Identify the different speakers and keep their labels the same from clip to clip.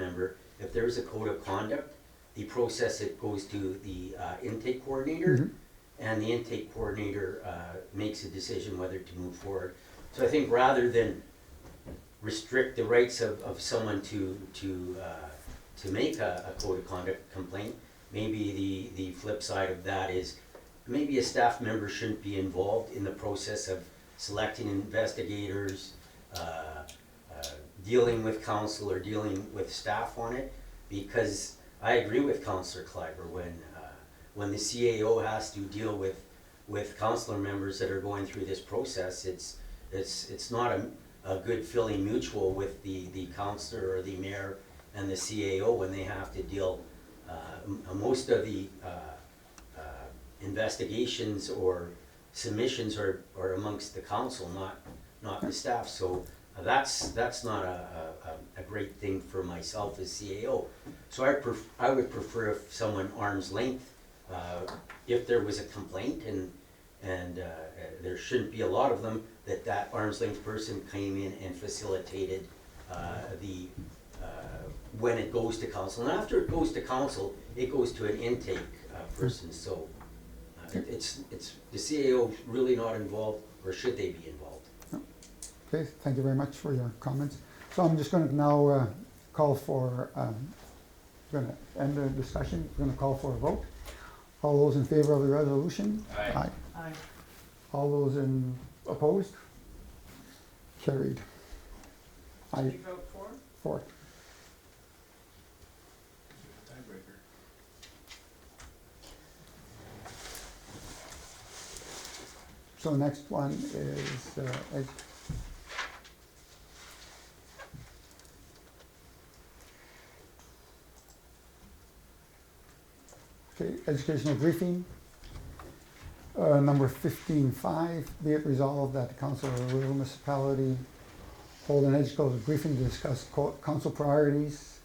Speaker 1: member, if there's a code of conduct, the process, it goes to the uh, intake coordinator, and the intake coordinator uh, makes a decision whether to move forward. So I think rather than restrict the rights of, of someone to, to, uh, to make a, a code of conduct complaint, maybe the, the flip side of that is, maybe a staff member shouldn't be involved in the process of selecting investigators, uh, uh, dealing with council or dealing with staff on it, because I agree with Councillor Kleiber when, uh, when the CAO has to deal with, with councillor members that are going through this process, it's, it's, it's not a, a good feeling mutual with the, the councillor or the mayor and the CAO when they have to deal, uh, m- most of the, uh, uh, investigations or submissions are, are amongst the council, not, not the staff, so that's, that's not a, a, a- a great thing for myself as CAO. So I pref, I would prefer if someone arm's length, uh, if there was a complaint and, and, uh, uh, there shouldn't be a lot of them, that that arm's length person came in and facilitated, uh, the, uh, when it goes to council. And after it goes to council, it goes to an intake, uh, person, so, uh, it- It's, it's, the CAO really not involved, or should they be involved?
Speaker 2: Okay, thank you very much for your comments. So I'm just going to now uh, call for, um, going to end the discussion, we're going to call for a vote. All those in favor of the resolution?
Speaker 3: Aye.
Speaker 4: Aye.
Speaker 2: All those in opposed? Carried.
Speaker 4: Did
Speaker 2: Aye,
Speaker 4: you vote for?
Speaker 2: four.
Speaker 3: Tiebreaker.
Speaker 2: So the next one is, uh, ed- okay, educational briefing. Uh, number fifteen five, be it resolved that the council of the rural municipality hold an educational briefing to discuss co- council priorities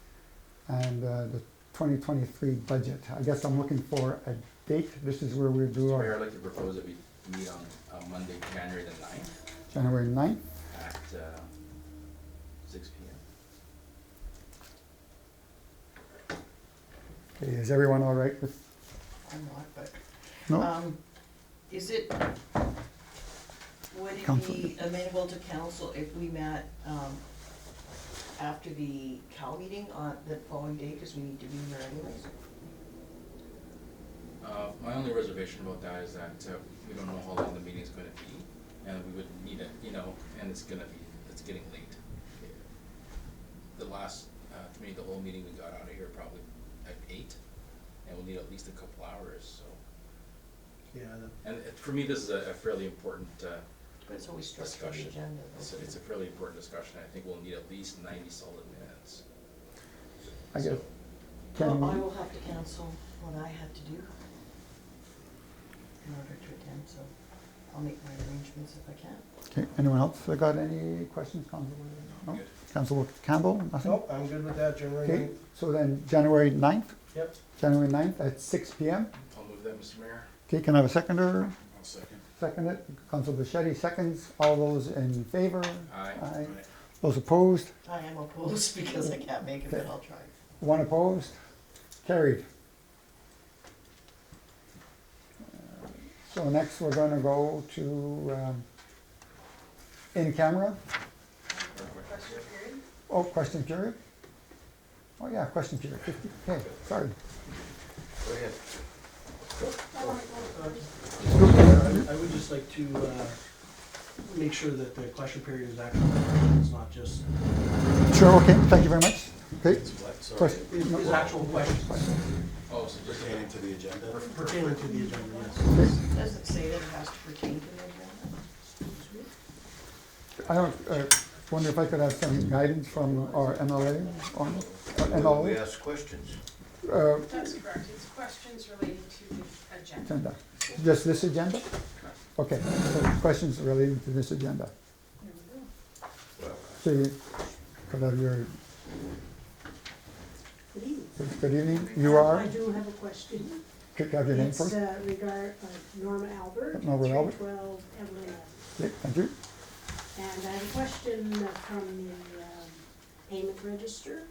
Speaker 2: and, uh, the twenty twenty-three budget. I guess I'm looking for a date. This is where we do
Speaker 3: Mr. Mayor,
Speaker 2: our
Speaker 3: I'd like to propose that we meet on, uh Monday, January the ninth
Speaker 2: January ninth.
Speaker 3: at, uh, six P M.
Speaker 2: Okay, Is everyone all right with,
Speaker 4: I'm not, but,
Speaker 2: no?
Speaker 4: um, is it, would it
Speaker 2: Council.
Speaker 4: be amenable to council if we met, um, after the Cal meeting on the following day, because we need to be here anyways?
Speaker 3: Uh, my only reservation about that is that, uh, we don't know how long the meeting's gonna be, and we would need it, you know, and it's gonna be, it's getting late. The last, uh, committee, the whole meeting, we got out of here probably at eight, and we'll need at least a couple hours, so.
Speaker 5: Yeah, the-
Speaker 3: And uh, for me, this is a a fairly important, uh,
Speaker 4: But it's always structured on the
Speaker 3: Discussion.
Speaker 4: agenda.
Speaker 3: It's, it's a fairly important discussion, I think we'll need at least ninety solid minutes.
Speaker 2: I guess,
Speaker 3: So,
Speaker 2: can
Speaker 4: Well, I
Speaker 2: we,
Speaker 4: will have to cancel what I had to do in order to attend, so I'll make my arrangements if I can.
Speaker 2: okay, anyone else got any questions, Council? No?
Speaker 3: Good.
Speaker 2: Council Campbell, nothing?
Speaker 5: Nope, oh, I'm good with that, January
Speaker 2: Okay,
Speaker 5: ninth.
Speaker 2: so then January ninth,
Speaker 5: Yep,
Speaker 2: January ninth at six P M.
Speaker 3: I'll move that, Mr. Mayor.
Speaker 2: Okay, can I have a seconder?
Speaker 3: I'll second.
Speaker 2: Second it, Council Bichetti seconds, all those in favor?
Speaker 3: Aye.
Speaker 2: Aye. Those opposed?
Speaker 4: I am opposed because I can't make it, but I'll try.
Speaker 2: One opposed? Carried. So next, we're gonna go to, um, in camera. Oh, question period? Oh, yeah, question period, fifty, okay, sorry.
Speaker 5: Um, I would just like to uh, make sure that the question period is actually, it's not just,
Speaker 2: Sure, okay, thank you very much. Okay, question,
Speaker 5: is is actual questions
Speaker 3: Oh, so just a
Speaker 6: Pertaining to the agenda?
Speaker 5: pertaining to the agenda, yes.
Speaker 4: Does it say that it has to pertain to the agenda?
Speaker 2: I don't, uh, wonder if I could have some guidance from our MLA on, or
Speaker 6: We
Speaker 2: MLA,
Speaker 6: ask questions.
Speaker 2: uh,
Speaker 7: That's correct, it's questions relating to the agenda.
Speaker 2: agenda. Just this agenda? Okay, so questions relating to this agenda. So you could have your, good evening, you
Speaker 8: I
Speaker 2: are,
Speaker 8: do have a question.
Speaker 2: could have your name
Speaker 8: It's,
Speaker 2: first?
Speaker 8: uh, regard, uh, Norma Albert.
Speaker 2: Norma Albert.
Speaker 8: Three twelve Evelyn Avenue.
Speaker 2: Okay, Thank you.
Speaker 8: And I have a question uh, from the, um, payment register.